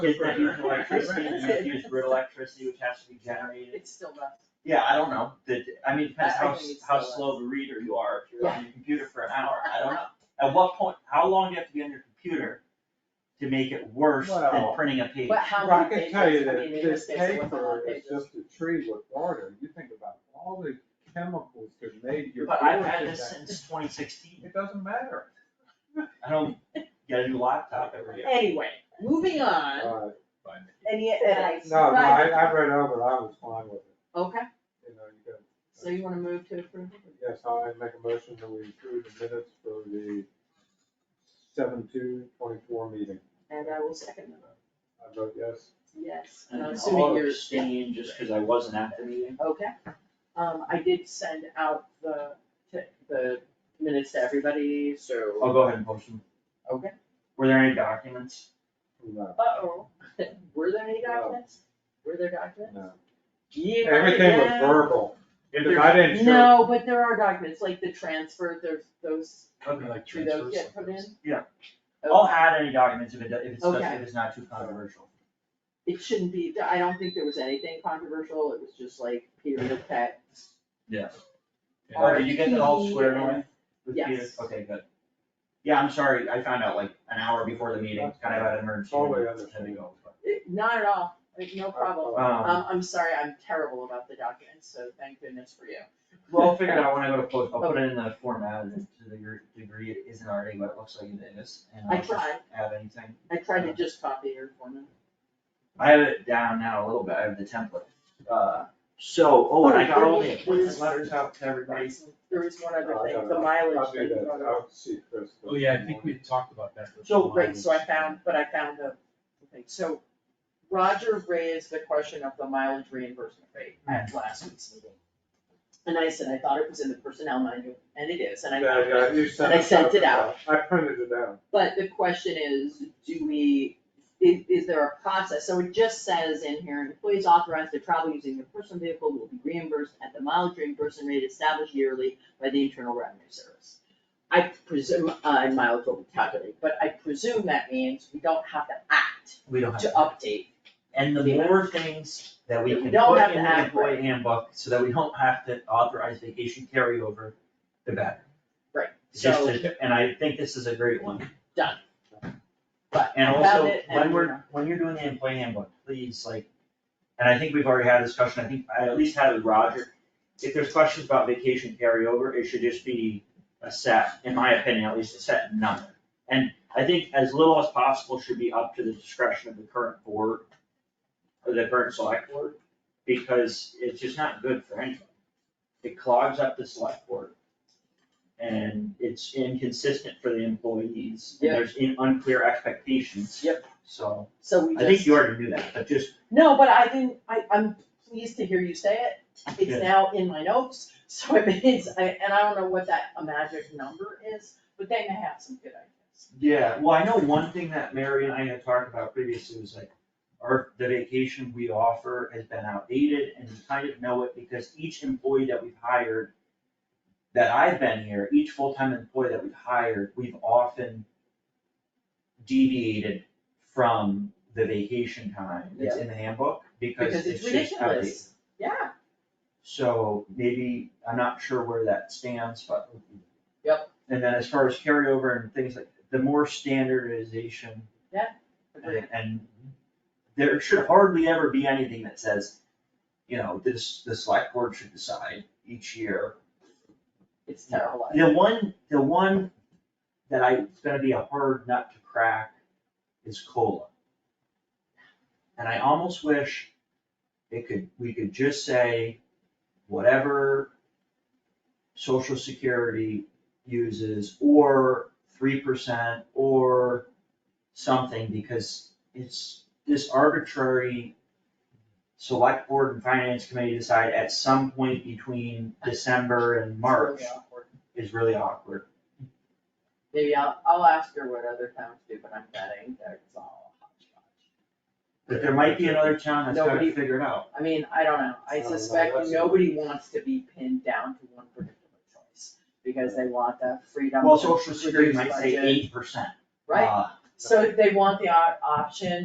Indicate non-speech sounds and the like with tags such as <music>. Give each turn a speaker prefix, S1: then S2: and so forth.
S1: If they use electricity, you know, use grid electricity, which has to be generated.
S2: It's still rough.
S1: Yeah, I don't know, the, I mean, depends
S2: I- I
S1: how,
S2: think
S1: s-
S2: it's
S1: how
S2: still-
S1: slow of a reader you are, if you're on your computer for an hour, I don't know. At what point, how long do you have to be on your computer to make it worse than
S3: Well,
S1: printing a page?
S2: But how
S3: Well, I
S2: many
S3: can
S2: pages,
S3: tell you
S2: I
S3: that
S2: mean, in
S3: this
S2: this case, it wasn't a lot
S3: paper
S2: of
S3: is
S2: pages.
S3: just a tree with water, you think about all the chemicals that made your.
S1: But I've had
S3: orchid
S1: this
S3: that-
S1: since twenty sixteen,
S3: It doesn't matter.
S1: I don't get a new laptop every year.
S2: Anyway, moving on,
S3: Uh,
S2: any advice?
S3: No, no, I, I read over, it. I was fine with it,
S2: Okay,
S3: you know, you got,
S2: so you wanna move to approve?
S3: yes, I make a motion that we approve the minutes for the seven two twenty-four meeting.
S2: And I will second that.
S3: I vote yes.
S2: Yes, and
S1: And
S2: I'm
S1: I'll
S2: assuming you're,
S1: abstain just because I wasn't at the meeting.
S2: okay. Um, I did send out the, to- the minutes to everybody, so.
S3: Oh.
S1: I'll go ahead and post them.
S2: Okay.
S1: Were there any documents?
S3: No,
S2: Uh-oh, <laughs> were there any documents? Were there documents?
S3: no.
S2: Yeah,
S3: Everything was
S2: yeah.
S3: verbal,
S1: If
S3: because I
S1: there's-
S3: didn't show.
S2: No, but there are documents, like the transfer, there's those,
S1: Okay.
S4: Like
S2: do those
S4: transfers.
S2: get put in?
S1: Yeah.
S2: Okay.
S1: I'll add any documents if it, do- if it's,
S2: Okay.
S1: if it's not too controversial.
S2: It shouldn't be, I don't think there was anything controversial, it was just like period of text.
S1: Yes.
S4: Yeah.
S1: Or you get that all squared
S2: RP,
S1: away? with Peter?
S2: Yes.
S1: Okay, good. Yeah, I'm sorry, I found out like an hour before the meeting, kind of had an emergency.
S3: Totally
S1: had to go, but-
S2: It- Not at all, like, no problem.
S1: Um,
S2: Um, I'm sorry, I'm terrible about the documents, so thank goodness for you.
S1: well, I'll figure it out when I go to post, I'll put it in the format and to the gr- degree it isn't already what it looks like it is. and
S2: I
S1: I'll just
S2: tried.
S1: Add anything.
S2: I tried to just copy your format.
S1: I have it down now a little bit, I have the template. Uh, so, oh, and I got all the appointment letters out to everybody.
S2: There was one other
S3: Oh, I
S2: thing,
S3: don't
S2: the
S3: know.
S2: mileage
S3: I'll
S2: thing.
S3: do that, I'll see Chris.
S4: Oh, yeah, I think we talked about that. with
S1: So,
S2: Right, so I
S4: mileage.
S2: found, but I found the, the thing, so Roger raised the question of the mileage reimbursement rate at last week's meeting. And I said, I thought it was in the personnel manual, and it is, and I
S3: Yeah,
S2: found it.
S3: yeah, you sent
S2: And I
S3: us
S2: sent it
S3: out. I printed it out.
S2: But the question is, do we, is, is there a process? So it just says in here, employees authorized to travel using their personal vehicle will be reimbursed at the mileage reimbursement rate established yearly by the Internal Revenue Service. I presume, uh, and mileage will be calculated, but I presume that means we don't have to act
S1: We don't have.
S2: to update.
S1: And the more things that we
S2: We
S1: can
S2: don't
S1: put
S2: have
S1: in
S2: to
S1: the
S2: act
S1: employee
S2: right.
S1: handbook, so that we don't have to authorize vacation carryover, the better.
S2: Right,
S1: Just
S2: so-
S1: to- and I think this is a great one.
S2: Done. But
S1: And
S2: I found
S1: also,
S2: it
S1: when
S2: and-
S1: we're, when you're doing the employee handbook, please, like, and I think we've already had a discussion, I think, I at least had it with Roger. If there's questions about vacation carryover, it should just be a set, in my opinion, at least a set number. And I think as little as possible should be up to the discretion of the current board or the current select board, because it's just not good for anyone. It clogs up the select board. And it's inconsistent for the employees, and
S2: Yeah.
S1: there's in- unclear expectations.
S2: Yep.
S1: So,
S2: So we just.
S1: I think you already knew that, but just,
S2: No, but I didn't, I, I'm pleased to hear you say it.
S1: Yeah.
S2: It's now in my notes, <laughs> so it means, I- and I don't know what that a magic number is, but they may have some good ideas.
S1: yeah, well, I know one thing that Mary and I had talked about previously was like, our, the vacation we offer has been outdated, and we kind of know it because each employee that we've hired, that I've been here, each full-time employee that we've hired, we've often deviated from the vacation time that's in the handbook, because
S2: Because
S1: it's
S2: it's
S1: just outdated.
S2: ridiculous. Yeah,
S1: So maybe, I'm not sure where that stands, but.
S2: Yep.
S1: And then as far as carryover and things like, the more standardization
S2: agreed.
S1: and, and there should hardly ever be anything that says, you know, this, the select board should decide each year.
S2: It's terrible.
S1: The one, the one that I, it's gonna be a hard nut to crack is COLA. And I almost wish it could, we could just say, whatever social security uses, or three percent, or something, because it's this arbitrary select board and finance committee decide at some point between December and
S2: It's
S1: March
S2: really awkward.
S1: is really awkward.
S2: Maybe I'll, I'll ask her what other towns do, but I'm betting that it's all hodgepodge.
S1: But there might be another town that's gotta
S2: Nobody-
S1: figure it out.
S2: I mean, I don't know, I
S3: I don't know,
S2: suspect
S3: that's-
S2: nobody wants to be pinned down to one particular choice, because they want that freedom.
S1: Well,
S2: to
S1: social security
S2: reduce
S1: might say uh,
S2: budget,
S1: eight percent.
S2: Right, so they want the op- option